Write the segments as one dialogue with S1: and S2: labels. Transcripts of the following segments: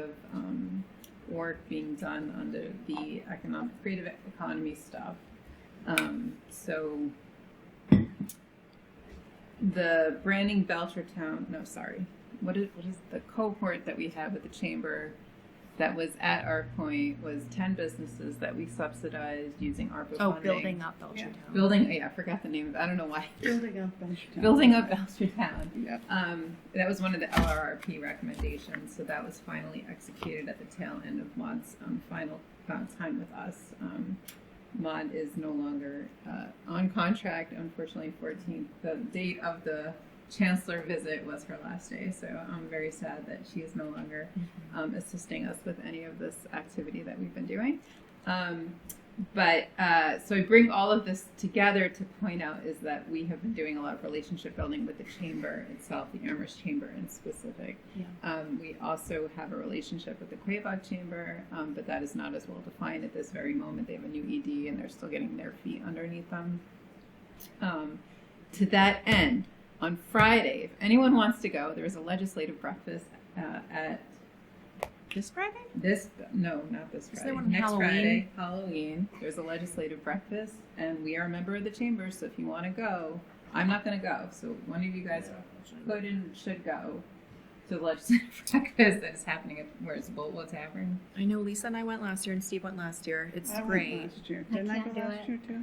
S1: of um, work being done under the economic creative economy stuff. Um, so the branding Belchertown, no, sorry, what is what is the cohort that we had with the chamber that was at our point was ten businesses that we subsidized using ARPA
S2: Oh,
S1: funding.
S2: building up Belchertown.
S1: Building, yeah, I forgot the name of it. I don't know why.
S3: Building up Belchertown.
S1: Building up Belchertown.
S3: Yep.
S1: Um, that was one of the LRRP recommendations, so that was finally executed at the tail end of Maud's um, final uh, time with us. Um, Maud is no longer uh, on contract, unfortunately. 14th, the date of the chancellor visit was her last day, so I'm very sad that she is no longer um, assisting us with any of this activity that we've been doing. Um, but uh, so I bring all of this together to point out is that we have been doing a lot of relationship building with the chamber itself, the Amherst Chamber in specific.
S2: Yeah.
S1: Um, we also have a relationship with the Quabog Chamber, um, but that is not as well defined at this very moment. They have a new ED and they're still getting their feet underneath them. Um, to that end, on Friday, if anyone wants to go, there is a legislative breakfast uh, at
S2: This Friday?
S1: this no, not this
S2: Is
S1: Friday.
S2: there one on
S1: Next
S2: Halloween?
S1: Friday, Halloween. There's a legislative breakfast, and we are a member of the chamber. So if you want to go, I'm not going to go. So one of you guys could and should go to the legislative breakfast that is happening at where's Boltwell Tavern.
S2: I know Lisa and I went last year, and Steve went last year. It's
S3: I
S2: great.
S3: went last year.
S4: I
S3: Didn't I,
S4: can't
S3: go
S4: do
S3: last
S4: it.
S3: year too?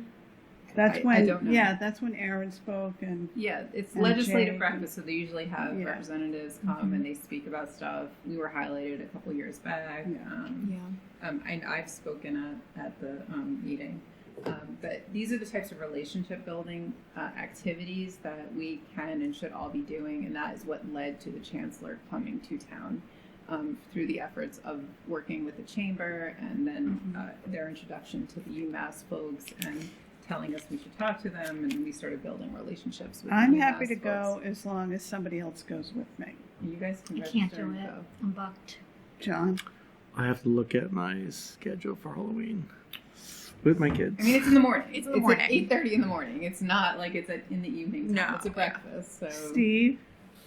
S3: That's
S1: I- I
S3: when,
S1: don't know.
S3: yeah, that's when Aaron spoke and
S1: Yeah, it's
S3: And
S1: legislative
S3: Jay.
S1: breakfast, so they usually have
S3: Yeah.
S1: representatives come and they speak about stuff. We were highlighted a couple years back.
S3: Yeah.
S1: Um,
S2: Yeah.
S1: um, and I've spoken at, at the um, meeting. Um, but these are the types of relationship building uh, activities that we can and should all be doing, and that is what led to the chancellor coming to town um, through the efforts of working with the chamber and then uh, their introduction to the UMass folks and telling us we should talk to them, and we started building relationships with.
S3: I'm
S1: UMass
S3: happy to
S1: folks.
S3: go as long as somebody else goes with me.
S1: And you guys can
S4: I can't
S1: register
S4: do
S1: and
S4: it.
S1: go.
S4: I'm bucked.
S3: John,
S5: I have to look at my schedule for Halloween with my kids.
S1: I mean, it's in the morning.
S2: It's in the morning.
S1: at eight thirty in the morning. It's not like it's at, in the evening. time.
S2: No.
S1: it's a breakfast. So
S3: Steve,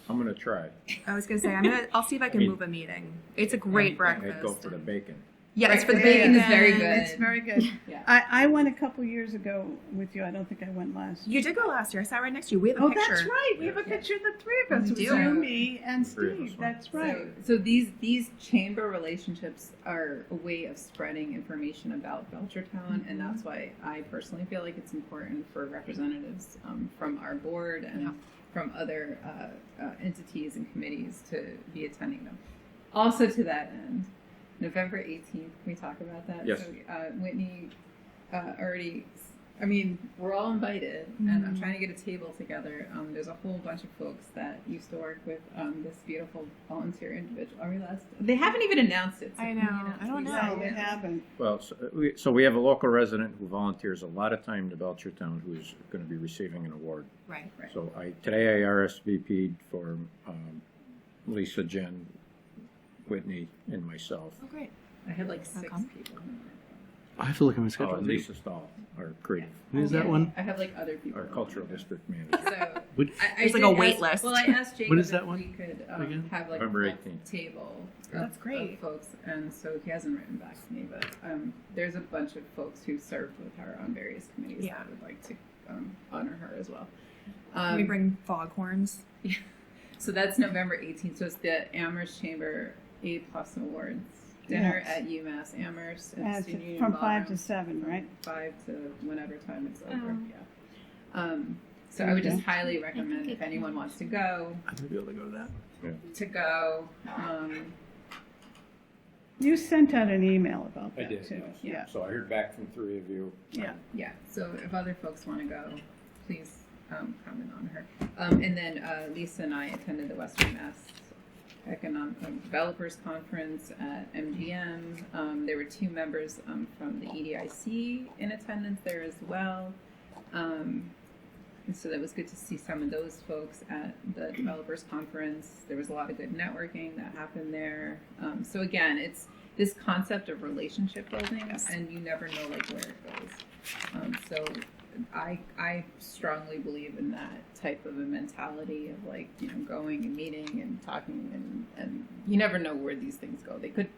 S6: I'm gonna try.
S2: I was gonna say I'm gonna. I'll see if I can
S6: I mean-
S2: move a meeting. It's a great breakfast.
S6: I'd go for the bacon.
S2: yeah, it's for the
S3: Breakfast
S2: bacon.
S1: is very good.
S3: it's very good.
S1: Yeah.
S3: I, I went a couple years ago with you. I don't think I went last. year.
S2: You did go last year. I sat right next to you. We have a
S3: Oh,
S2: picture.
S3: that's right. We have a
S1: Yeah.
S3: picture of the three of us.
S2: We
S3: It was
S2: do.
S3: you, me, and
S6: Three of us
S3: Steve.
S6: went.
S3: That's right.
S1: So, so these these chamber relationships are a way of spreading information about Belchertown,
S2: Mm-hmm.
S1: and that's why I personally feel like it's important for representatives um, from our board and
S2: Yeah.
S1: from other uh, uh, entities and committees to be attending them. Also, to that end, November eighteenth, can we talk about that?
S6: Yes.
S1: So, uh, Whitney uh, already. I mean, we're all invited, and
S2: Mm-hmm.
S1: I'm trying to get a table together. Um, there's a whole bunch of folks that used to work with um, this beautiful volunteer individual. Are we last? They haven't even announced it. so
S2: I
S1: can we
S2: know.
S1: announce
S2: I don't
S1: it?
S2: know.
S3: No,
S1: Yeah.
S3: they haven't.
S6: Well, so uh, we, so we have a local resident who volunteers a lot of time to Belchertown who's gonna be receiving an award.
S2: Right.
S1: Right.
S6: So I, today I RSVP'd for um, Lisa, Jen, Whitney, and myself.
S2: Oh, great.
S1: I had like six
S2: come?
S1: people.
S5: I have to look at my
S6: Oh,
S5: schedule.
S6: and Lisa Stahl, our creative,
S5: Who's that one?
S1: I had like other people.
S6: our cultural district manager.
S1: So I,
S5: What-
S1: I
S2: It's
S1: did
S2: like a wait
S1: ask-
S2: list.
S1: Well, I asked Jacob
S5: What is that
S1: if
S5: one?
S1: we could
S5: Again?
S1: um, have like
S6: November
S1: a full
S6: 18th.
S1: table.
S2: Oh, That's
S1: of-
S2: great.
S1: Of folks, and so he hasn't written back to me, but um, there's a bunch of folks who served with her on various committees
S2: Yeah.
S1: that would like to um, honor her as well.
S2: Can
S1: Um,
S2: we bring foghorns.
S1: So that's November 18th. So it's the Amherst Chamber A Plus Awards dinner
S3: Yes.
S1: at UMass Amherst at
S3: As-
S1: the Student Union
S3: from five
S1: Ballroom
S3: to seven, right?
S1: five to whenever time it's over.
S4: Um,
S1: Yeah. Um, so I would just
S3: Okay.
S1: highly recommend
S4: think
S1: if
S4: it
S1: anyone
S4: counts.
S1: wants to go,
S5: I'm gonna be able to go to that.
S1: to go. Um,
S3: You sent out an email about
S6: I
S3: that
S6: did,
S3: too.
S6: yes. So I heard back from three of you.
S3: Yeah.
S1: yeah. So if other folks want to go, please um, comment on her. Um, and then uh, Lisa and I attended the Western Mass Economic Developers Conference at MGM. Um, there were two members um, from the EDIC in attendance there as well. Um, and so that was good to see some of those folks at the developers conference. There was a lot of good networking that happened there. Um, so again, it's this concept of relationship building, and you never know like where it goes. Um, so I I strongly believe in that type of a mentality of like you know going and meeting and talking and and you never know where these things go. They could